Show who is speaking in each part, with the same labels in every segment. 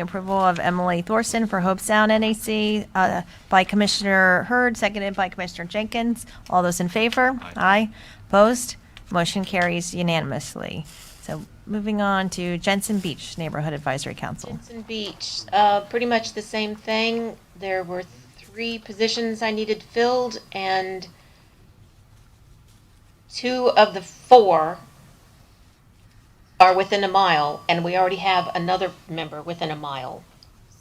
Speaker 1: Approval of Emily Thorson for Hope Sound NAC uh, by Commissioner Hurd, seconded by Commissioner Jenkins. All those in favor? Aye. Opposed? Motion carries unanimously. So moving on to Jensen Beach Neighborhood Advisory Council.
Speaker 2: Jensen Beach, uh, pretty much the same thing. There were three positions I needed filled, and two of the four are within a mile, and we already have another member within a mile.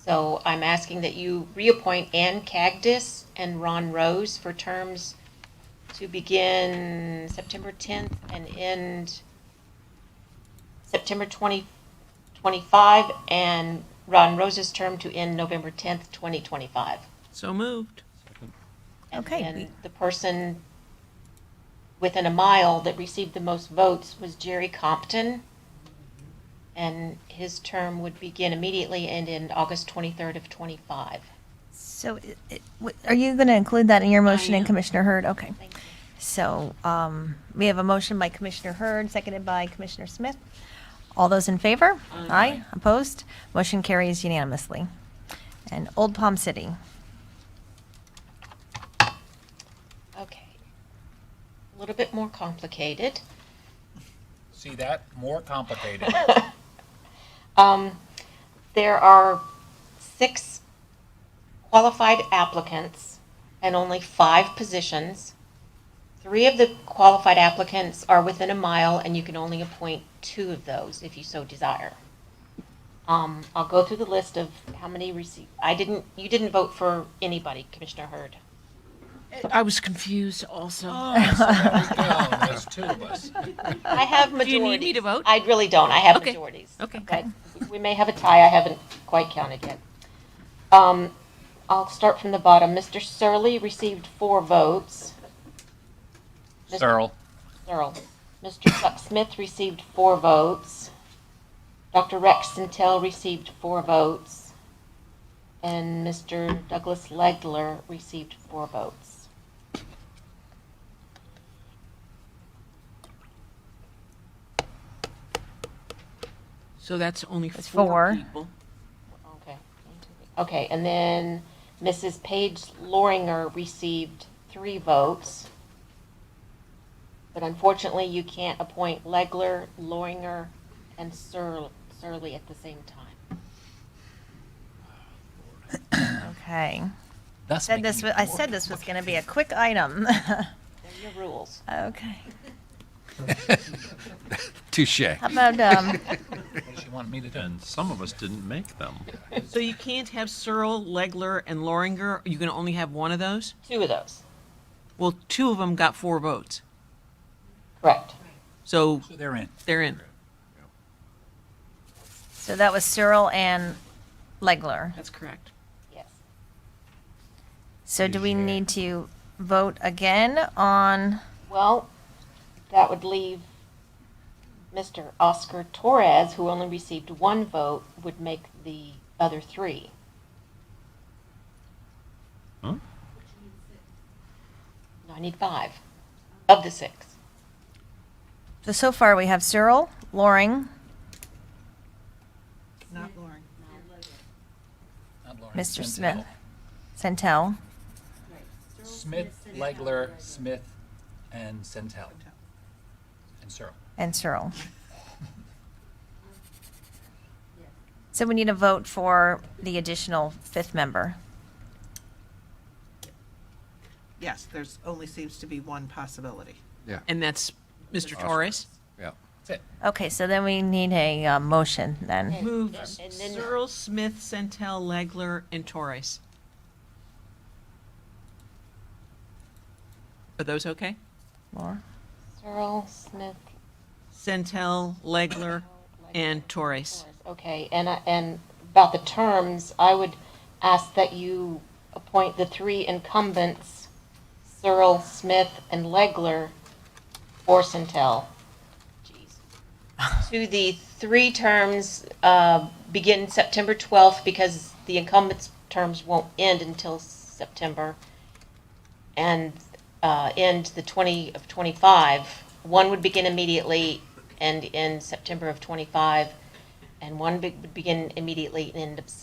Speaker 2: So I'm asking that you reappoint Ann Cagdis and Ron Rose for terms to begin September 10th and end September 20. 25, and Ron Rose's term to end November 10th, 2025.
Speaker 3: So moved.
Speaker 2: And-
Speaker 1: Okay.
Speaker 2: And the person within a mile that received the most votes was Jerry Compton, and his term would begin immediately and end August 23rd of 25.
Speaker 1: So it- it- w- are you going to include that in your motion and
Speaker 2: am.
Speaker 1: Commissioner Hurd? Okay.
Speaker 2: Thank you.
Speaker 1: So um, we have a motion by Commissioner Hurd, seconded by Commissioner Smith. All those in favor? Aye. Opposed? Motion carries unanimously. And Old Palm City.
Speaker 2: Okay. A little bit more complicated.
Speaker 4: See that? More complicated.
Speaker 2: Um, there are six qualified applicants and only five positions. Three of the qualified applicants are within a mile, and you can only appoint two of those if you so desire. Um, I'll go through the list of how many received. I didn't, you didn't vote for anybody, Commissioner Hurd.
Speaker 3: I was confused also.
Speaker 4: Oh, so there we go. There's two of us.
Speaker 2: I have
Speaker 3: Do
Speaker 2: majorities.
Speaker 3: you need me to vote?
Speaker 2: I really don't. I have
Speaker 3: Okay.
Speaker 2: majorities.
Speaker 3: Okay.
Speaker 2: We may have a tie. I haven't quite counted yet. Um, I'll start from the bottom. Mr. Surley received four votes. Mr.
Speaker 4: Searle.
Speaker 2: Searle. Mr. Chuck Smith received four votes. Dr. Rex Centel received four votes. And Mr. Douglas Legler received four votes.
Speaker 3: So that's only
Speaker 1: That's
Speaker 3: four
Speaker 1: four.
Speaker 3: people.
Speaker 2: Okay. Okay, and then Mrs. Paige Loringer received three votes. But unfortunately, you can't appoint Legler, Loringer, and Sur- Surley at the same time.
Speaker 1: Okay.
Speaker 4: That's
Speaker 1: Said this, wa- I said this was going to be a quick item.
Speaker 2: They're your rules.
Speaker 1: Okay.
Speaker 5: Touche.
Speaker 1: How about, um,
Speaker 4: What does she want me to do?
Speaker 6: And some of us didn't make them.
Speaker 3: So you can't have Searle, Legler, and Loringer. You can only have one of those?
Speaker 2: Two of those,
Speaker 3: Well, two of them got four votes.
Speaker 2: correct.
Speaker 3: So
Speaker 4: So they're in.
Speaker 3: they're in.
Speaker 1: so that was Searle and Legler.
Speaker 3: That's correct.
Speaker 2: Yes.
Speaker 1: So do we need to vote again on,
Speaker 2: Well, that would leave Mr. Oscar Torres, who only received one vote, would make the other three.
Speaker 6: Huh?
Speaker 2: No, I need five of the six.
Speaker 1: so so far we have Searle, Loring,
Speaker 4: Not Lauren,
Speaker 1: Mr.
Speaker 4: Centel.
Speaker 1: Smith. Centel.
Speaker 4: Smith, Legler, Smith, and Centel. And Searle.
Speaker 1: And Searle. So we need a vote for the additional fifth member.
Speaker 7: Yes, there's only seems to be one possibility.
Speaker 3: And that's Mr. Torres?
Speaker 5: Yeah.
Speaker 4: That's it.
Speaker 1: Okay, so then we need a uh, motion then.
Speaker 3: Move
Speaker 2: And then-
Speaker 3: Searle, Smith, Centel, Legler, and Torres. Are those okay?
Speaker 1: Laura?
Speaker 2: Searle, Smith,
Speaker 3: Centel, Legler,
Speaker 2: Legler,
Speaker 3: and Torres.
Speaker 2: Okay, and, I- and about the terms, I would ask that you appoint the three incumbents, Searle, Smith, and Legler, or Centel. Jeez. To the three terms, uh, begin September 12th, because the incumbents' terms won't end until September, and uh, end the 20 of 25. One would begin immediately and end September of 25, and one be- would begin immediately and end up